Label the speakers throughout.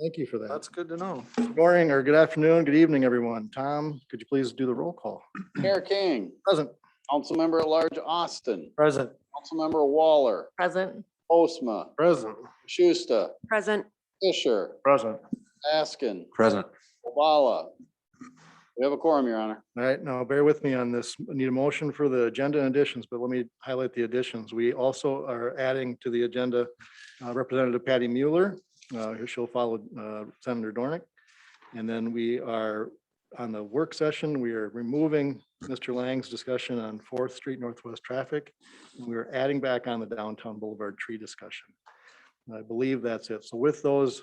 Speaker 1: Thank you for that.
Speaker 2: That's good to know.
Speaker 1: Good morning or good afternoon, good evening, everyone. Tom, could you please do the roll call?
Speaker 3: Mayor King,
Speaker 1: Present.
Speaker 3: Councilmember at Large Austin,
Speaker 2: Present.
Speaker 3: Councilmember Waller,
Speaker 4: Present.
Speaker 3: Postma,
Speaker 2: Present.
Speaker 3: Schuster,
Speaker 4: Present.
Speaker 3: Fisher,
Speaker 1: Present.
Speaker 3: Askin,
Speaker 5: Present.
Speaker 3: Obala. We have a quorum, Your Honor.
Speaker 1: All right, now bear with me on this. I Need a motion for the agenda and additions, but let me highlight the additions. We also are adding to the agenda uh, Representative Patty Mueller. uh, who She'll follow uh, Senator Dornick. And then we are on the work session, we are removing Mr. Lang's discussion on Fourth Street Northwest traffic. and We're adding back on the downtown Boulevard tree discussion. And I believe that's it. So with those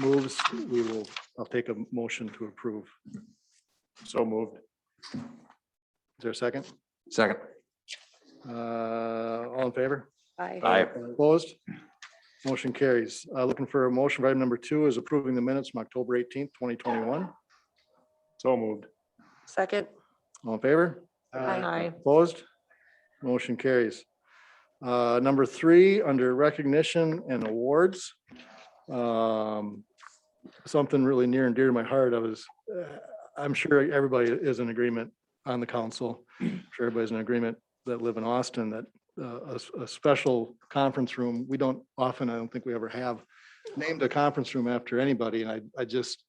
Speaker 1: moves, we will, I'll take a motion to approve.
Speaker 2: So moved.
Speaker 1: Is there a second?
Speaker 5: Second.
Speaker 1: Uh, All in favor?
Speaker 4: Aye.
Speaker 5: Aye.
Speaker 1: Opposed? Motion carries. Uh, Looking for a motion. Item number two is approving the minutes from October eighteenth, twenty twenty-one.
Speaker 2: So moved.
Speaker 4: Second.
Speaker 1: All in favor?
Speaker 4: Aye.
Speaker 1: Opposed? Motion carries. Uh, Number three, under recognition and awards. um, Something really near and dear to my heart. I was, uh, I'm sure everybody is in agreement on the council. I'm Sure everybody's in agreement that live in Austin that uh, a, a special conference room, we don't often, I don't think we ever have named a conference room after anybody. And I, I just,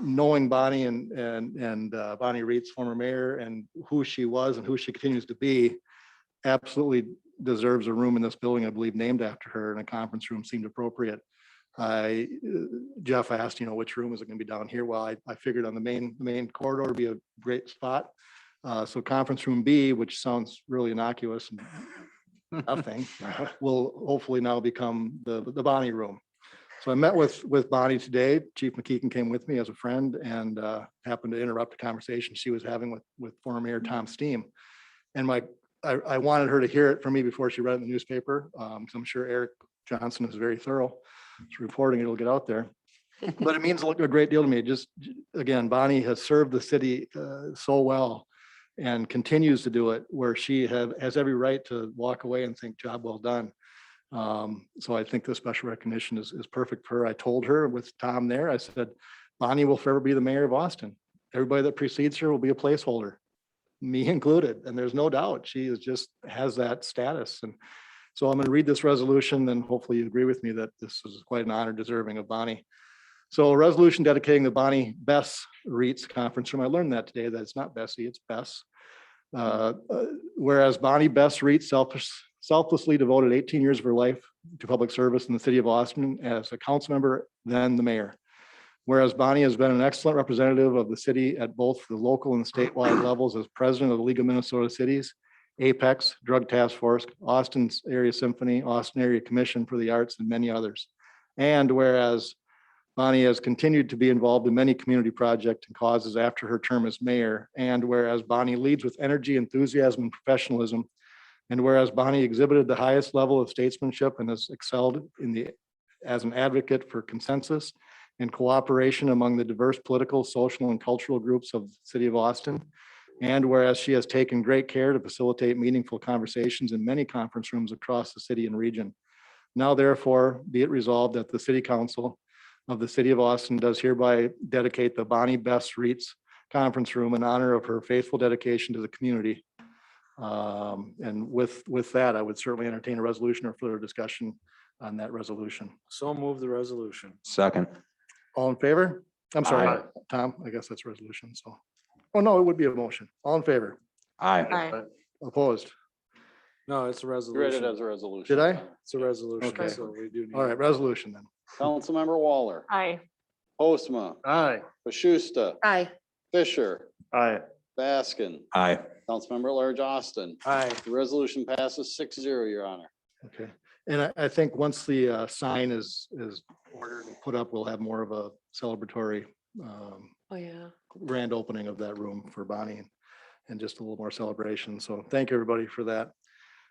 Speaker 1: knowing Bonnie and, and, and uh, Bonnie Reed's former mayor and who she was and who she continues to be, absolutely deserves a room in this building, I believe, named after her, and a conference room seemed appropriate. I, uh, Jeff asked, you know, which room is it gonna be down here? Well, I, I figured on the main, the main corridor would be a great spot. Uh, so conference room B, which sounds really innocuous and nothing, will hopefully now become the, the Bonnie room. So I met with, with Bonnie today. Chief McKeegan came with me as a friend and uh, happened to interrupt a conversation she was having with, with former mayor Tom Steen. And my, I, I wanted her to hear it from me before she read it in the newspaper. um, 'cause I'm sure Eric Johnson is very thorough. It's reporting, it'll get out there. But it means a lot- a great deal to me. Just, again, Bonnie has served the city uh, so well and continues to do it where she have, has every right to walk away and think job well done. Um, so I think the special recognition is, is perfect for her. I told her with Tom there, I said, Bonnie will forever be the mayor of Austin. Everybody that precedes her will be a placeholder, me included. And there's no doubt, she is just, has that status. And so I'm going to read this resolution, then hopefully you agree with me that this is quite an honor deserving of Bonnie. So a resolution dedicating the Bonnie Bess Reeds Conference Room. I learned that today, that it's not Bessie, it's Bess. Uh, uh, Whereas Bonnie Bess Reed selfish, selflessly devoted eighteen years of her life to public service in the city of Austin as a council member, then the mayor. Whereas Bonnie has been an excellent representative of the city at both the local and statewide levels as president of the League of Minnesota Cities, Apex, Drug Task Force, Austin's Area Symphony, Austin Area Commission for the Arts, and many others. And whereas Bonnie has continued to be involved in many community projects and causes after her term as mayor. And whereas Bonnie leads with energy, enthusiasm, and professionalism. And whereas Bonnie exhibited the highest level of statesmanship and has excelled in the, as an advocate for consensus and cooperation among the diverse political, social, and cultural groups of the city of Austin. And whereas she has taken great care to facilitate meaningful conversations in many conference rooms across the city and region. Now therefore, be it resolved that the city council of the city of Austin does hereby dedicate the Bonnie Best Reeds Conference Room in honor of her faithful dedication to the community. Um, And with, with that, I would certainly entertain a resolution or further discussion on that resolution.
Speaker 2: So move the resolution.
Speaker 5: Second.
Speaker 1: All in favor? I'm sorry,
Speaker 5: Aye.
Speaker 1: Tom, I guess that's resolution, so. Oh, no, it would be a motion. All in favor?
Speaker 5: Aye.
Speaker 4: Aye.
Speaker 1: Opposed?
Speaker 2: No, it's a
Speaker 3: You Read it
Speaker 2: resolution.
Speaker 3: as a resolution.
Speaker 1: Did I?
Speaker 2: It's a resolution,
Speaker 1: Okay.
Speaker 2: so we do. need-
Speaker 1: All right, resolution then.
Speaker 3: Councilmember Waller,
Speaker 4: Aye.
Speaker 3: Postma,
Speaker 2: Aye.
Speaker 3: Schuster,
Speaker 4: Aye.
Speaker 3: Fisher,
Speaker 1: Aye.
Speaker 3: Baskin,
Speaker 5: Aye.
Speaker 3: Councilmember at Large Austin.
Speaker 2: Aye.
Speaker 3: The resolution passes six zero, Your Honor.
Speaker 1: Okay, and I, I think once the uh, sign is, is ordered and put up, we'll have more of a celebratory um,
Speaker 4: Oh, yeah.
Speaker 1: grand opening of that room for Bonnie and- and just a little more celebration. So thank you, everybody for that.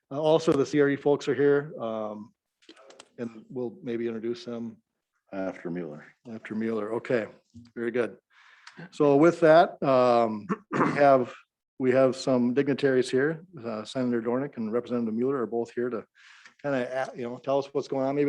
Speaker 1: Uh, Also, the CRE folks are here um, and we'll maybe introduce them
Speaker 6: After Mueller.
Speaker 1: after Mueller. Okay, very good. So with that, um, we have, we have some dignitaries here. Uh, Senator Dornick and Representative Mueller are both here to kind of, you know, tell us what's going on, maybe